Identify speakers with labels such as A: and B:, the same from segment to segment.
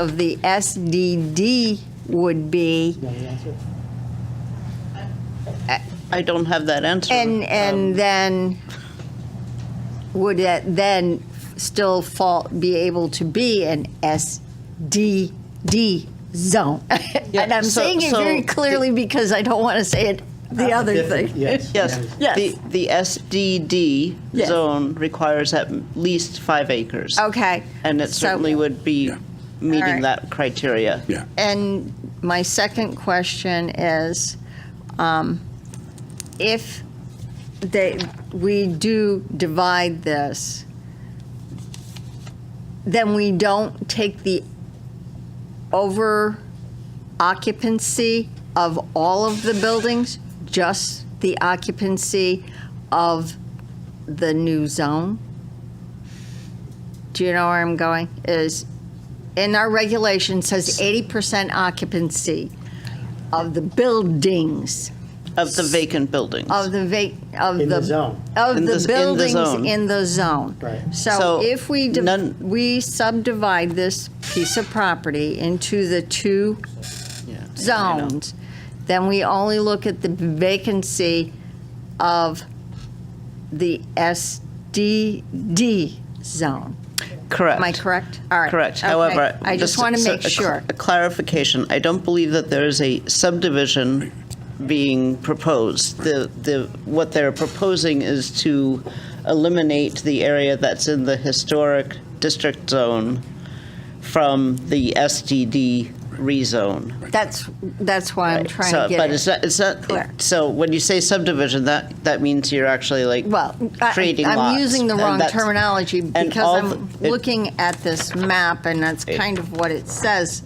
A: of the SDD would be,
B: I don't have that answer.
A: and, and then, would it then still fall, be able to be an SDD zone? And I'm
B: so-
A: saying it
B: so
A: very
B: the-
A: clearly because I don't want to say it, the other thing.
C: Yes.
B: Yes,
A: Yes.
B: the, the SDD
A: Yes.
B: zone requires at least five acres.
A: Okay.
B: And it
A: So-
B: certainly would be meeting
A: Alright.
B: that criteria.
D: Yeah.
A: And my second question is, um, if they, we do divide this, then we don't take the over occupancy of all of the buildings, just the occupancy of the new zone? Do you know where I'm going? Is, in our regulation says 80% occupancy of the buildings,
B: Of the vacant buildings.
A: of the vac, of the.
C: In the zone.
A: Of
B: In
A: the
B: the- in the zone.
A: buildings in the zone.
C: Right.
A: So
B: So
A: if we, div-
B: none-
A: we subdivide this piece of property into the two
B: Yeah, I know.
A: zoned, then we only look at the vacancy of the SDD zone.
B: Correct.
A: Am I correct? All right.
B: Correct.
A: Okay.
B: However,
A: I just
B: so-
A: want to
B: so
A: make
B: a cl-
A: sure.
B: A clarification. I don't believe that there is a subdivision being proposed. The, the, what they're proposing is to eliminate the area that's in the historic district zone from the SDD rezone.
A: That's, that's why I'm trying
B: So-
A: to
B: But
A: get
B: it's
A: it.
B: not, it's not,
A: Correct.
B: so when you say subdivision, that, that means you're actually like
A: Well, I-
B: creating lots.
A: I'm using the
B: and
A: wrong
B: that's-
A: terminology
B: all
A: because I'm
B: the- it-
A: looking at this map and that's
B: It-
A: kind of what it says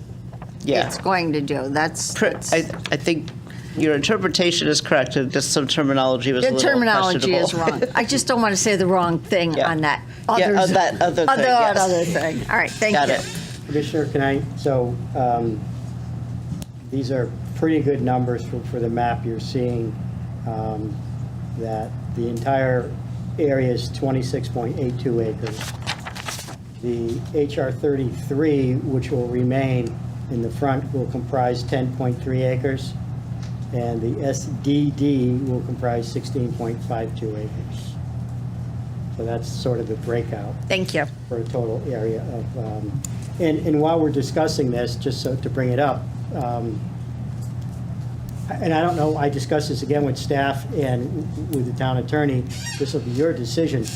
B: Yeah.
A: it's going to do. That's,
B: Pre-
A: that's-
B: I, I think your interpretation is correct, it's just some terminology was a
A: the
B: little
A: terminology is
B: questionable.
A: wrong. I just don't want to say the wrong thing
B: Yeah.
A: on that.
B: Yeah,
A: Others-
B: on that other thing,
A: Other,
B: yes.
A: other thing. All right, thank you.
B: Got it.
C: Commissioner, can I, so um, these are pretty good numbers for for the map you're seeing, um, that the entire area is 26.82 acres. The HR 33, which will remain in the front, will comprise 10.3 acres, and the SDD will comprise 16.52 acres. So that's sort of the breakout
A: Thank you.
C: for a total area of, um, and, and while we're discussing this, just so to bring it up, um, and I don't know, I discussed this again with staff and with the town attorney, this will be your decision.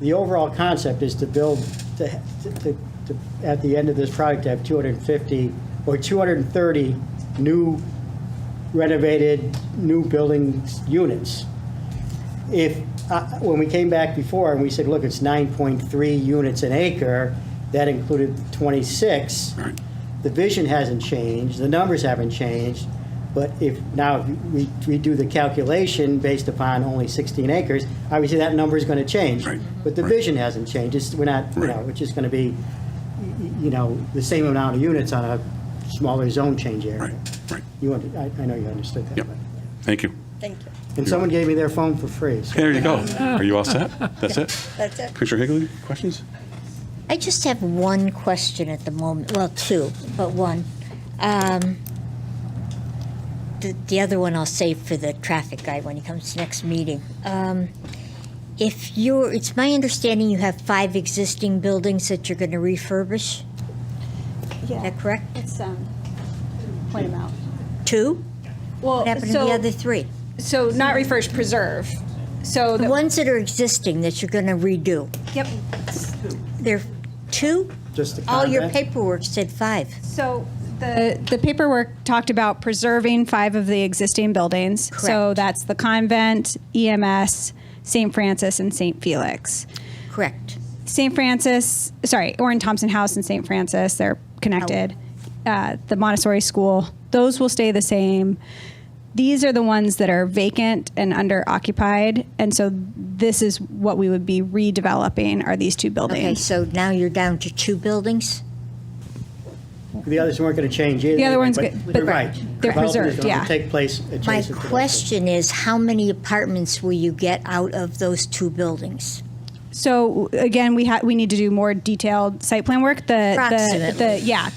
C: The overall concept is to build, to, to, to, at the end of this project, to have 250 or 230 new renovated, new buildings, units if, uh, when we came back before and we said, look, it's 9.3 units an acre, that included 26. The vision hasn't changed, the numbers haven't changed, but if now we, we do the calculation based upon only 16 acres, obviously that number is going to change.
D: Right.
C: But the
D: Right.
C: vision hasn't changed, it's, we're not, you
D: Right.
C: know, it's just going to be, y- y- you know, the same amount of units on a smaller zone change
D: Right,
C: area.
D: right.
C: You, under- I I know you understood that.
D: Yep.
C: but-
D: Thank you.
E: Thank you.
C: And someone gave me their phone for free, so.
D: There you go. Are you all set? That's it?
E: That's it.
D: Commissioner Higley, questions?
E: I just have one question at the moment, well, two, but one. Um, The, the other one I'll save for the traffic guy when he comes to next meeting. Um, If you're, it's my understanding you have five existing buildings that you're going to refurbish, is
F: Yeah,
E: that correct?
F: it's, um, point them out.
E: Two?
F: Well,
E: What happened to the
F: so,
E: other three?
F: so not refurbish, preserve. So
E: The
F: the,
E: ones that are existing that you're going to redo,
F: yep,
E: they're two?
C: Just the
E: All your
C: convent?
E: paperwork said five.
F: so the, the paperwork talked about preserving five of the existing buildings. So
E: Correct.
F: that's the convent, E EMS, St. Francis, and St. Felix.
E: Correct.
F: St. Francis, sorry, Orrin Thompson House and St. Francis, they're connected.
E: Oh.
F: Uh, the Montessori School, those will stay the same. These are the ones that are vacant and under occupied. And so this is what we would be redeveloping are these two
E: Okay,
F: buildings.
E: so now you're down to two buildings?
C: The others weren't going to change either.
F: The other one's good,
C: You're
F: but
C: right.
F: they're
C: Development is
F: preserved,
C: gonna
F: yeah.
C: Take place
E: My
C: adjacent to those.
E: question is, how many apartments will you get out of those two buildings?
F: So again, we ha, we need to do more detailed site plan work. The, the,
E: Approximately.
F: the, yeah,